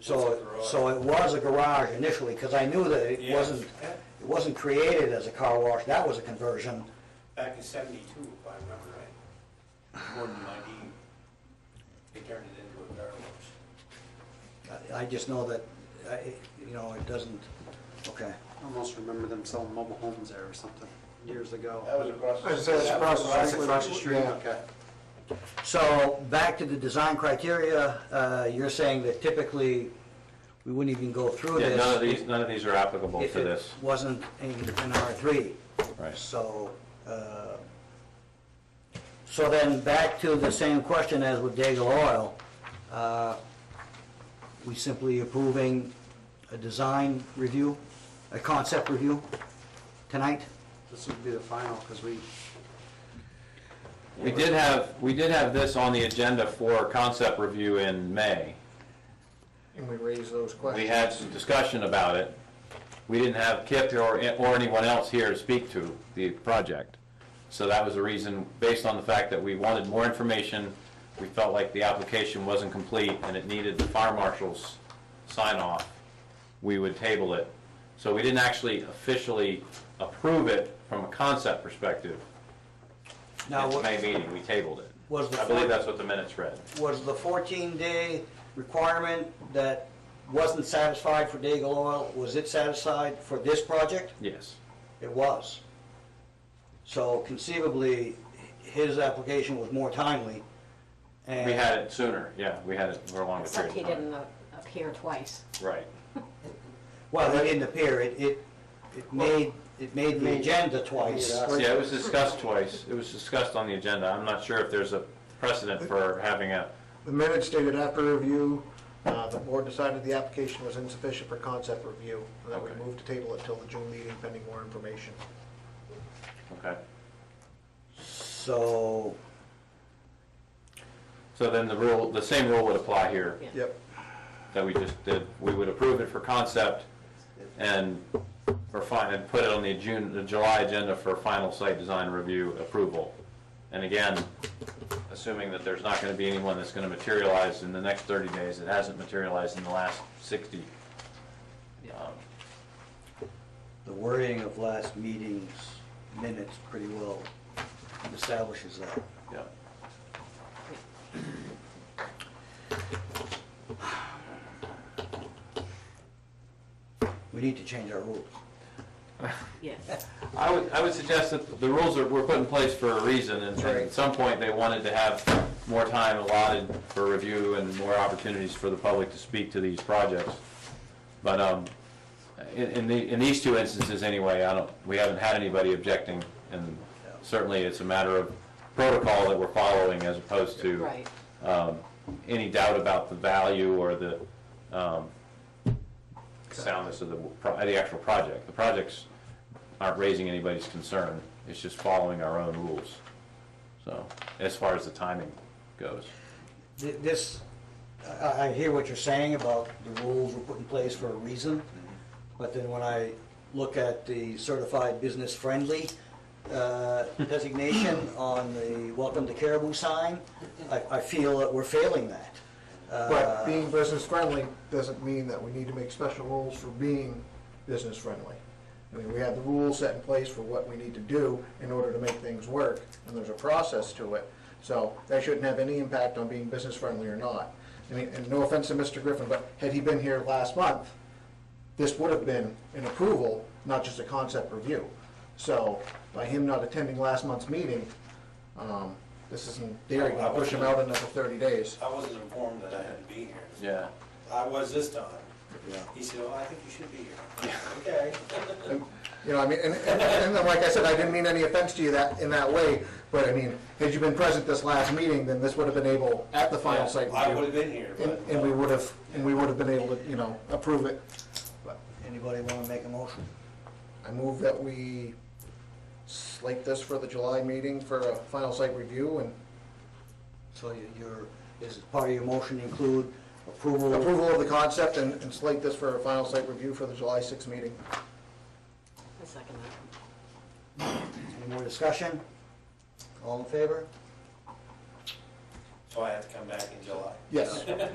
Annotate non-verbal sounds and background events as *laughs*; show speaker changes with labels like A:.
A: So,
B: It's a garage.
A: so it was a garage initially, because I knew that it
B: Yes.
A: wasn't, it wasn't created as a car wash, that was a conversion.
C: Back in seventy-two, if I remember right, more than ninety, they turned it into a car wash.
A: I- I just know that, I- you know, it doesn't, okay.
D: I almost remember them selling mobile homes there or something years ago.
C: That was across.
E: As I said, it's
C: that
E: across
C: was
E: the
D: That's
E: street.
D: across the street,
E: Yeah.
D: okay.
A: So, back to the design criteria, uh, you're saying that typically, we wouldn't even go through
F: Yeah,
A: this.
F: none of these, none of these are applicable
A: If
F: to
A: it
F: this.
A: wasn't in in R3.
F: Right.
A: So, uh, so then back to the same question as with Daigle Oil. uh, We simply approving a design review, a concept review tonight?
D: This would be the final, because we,
F: We did have, we did have this on the agenda for concept review in May.
E: And we raise those questions.
F: We had some discussion about it. We didn't have Kip or, or anyone else here to speak to the project. So that was the reason, based on the fact that we wanted more information, we felt like the application wasn't complete and it needed the fire marshal's sign off, we would table it. So we didn't actually officially approve it from a concept perspective.
A: Now,
F: At the May
A: wa-
F: meeting, we tabled it.
A: Was the
F: I believe
A: fourth-
F: that's what the minutes read.
A: was the 14-day requirement that wasn't satisfied for Daigle Oil, was it satisfied for this project?
F: Yes.
A: It was. So conceivably, his application was more timely, and...
F: We had it sooner, yeah, we had it for a longer period
G: Except
F: of
G: he
F: time.
G: didn't uh, appear twice.
F: Right.
A: Well, it didn't appear, it, it, it made, it made the agenda twice.
F: Yeah, it was discussed twice. It was discussed on the agenda. I'm not sure if there's a precedent for having a,
E: The minutes stated after review, uh, the board decided the application was insufficient for concept review, and that we
F: Okay.
E: moved to table it till the June meeting pending more information.
F: okay.
A: So,
F: So then the rule, the same rule would apply here
G: Yeah.
E: Yep.
F: that we just did. We would approve it for concept and, or fine, and put it on the June, the July agenda for final site design review approval. And again, assuming that there's not gonna be anyone that's gonna materialize in the next thirty days that hasn't materialized in the last sixty. Um,
A: the wording of last meeting's minutes pretty well establishes that.
F: Yeah.
A: We need to change our rules.
G: Yes.
F: I would, I would suggest that the rules are, were put in place for a reason, and and at some point, they wanted to have more time allotted for review and more opportunities for the public to speak to these projects. But, um, in, in the, in these two instances anyway, I don't, we haven't had anybody objecting, and certainly it's a matter of protocol that we're following as opposed to
G: Right.
F: um, any doubt about the value or the um, soundness of the, pro- the actual project. The projects aren't raising anybody's concern, it's just following our own rules. So, as far as the timing goes.
A: Th- This, I, I hear what you're saying about the rules were put in place for a reason,
E: Mm-hmm.
A: but then when I look at the certified business friendly
E: *laughs*
A: uh, designation on the Welcome to Caribou sign, I, I feel that we're failing that.
E: But
A: Uh,
E: being business friendly doesn't mean that we need to make special rules for being business friendly. I mean, we have the rules set in place for what we need to do in order to make things work, and there's a process to it. So that shouldn't have any impact on being business friendly or not. I mean, and no offense to Mr. Griffin, but had he been here last month, this would have been an approval, not just a concept review. So by him not attending last month's meeting, um, this isn't, there you push him out another thirty days.
C: I wasn't informed that I had to be here.
F: Yeah.
C: I was this time.
E: Yeah.
C: He said, well, I think you should be here. Okay.
E: You know, I mean, and, and, and then, like I said, I didn't mean any offense to you that, in that way, but I mean, had you been present this last meeting, then this would have been able, at the final site
C: I would have
E: review.
C: been here,
E: And,
C: but.
E: and we would have, and we would have been able to, you know, approve it. But
A: Anybody want to make a motion?
E: I move that we slate this for the July meeting for a final site review and
A: So you- your, is part of your motion include approval?
E: approval of the concept and, and slate this for a final site review for the July sixth meeting.
G: I second that.
A: Any more discussion? All in favor?
C: So I have to come back in July. *laughs*
E: Yes.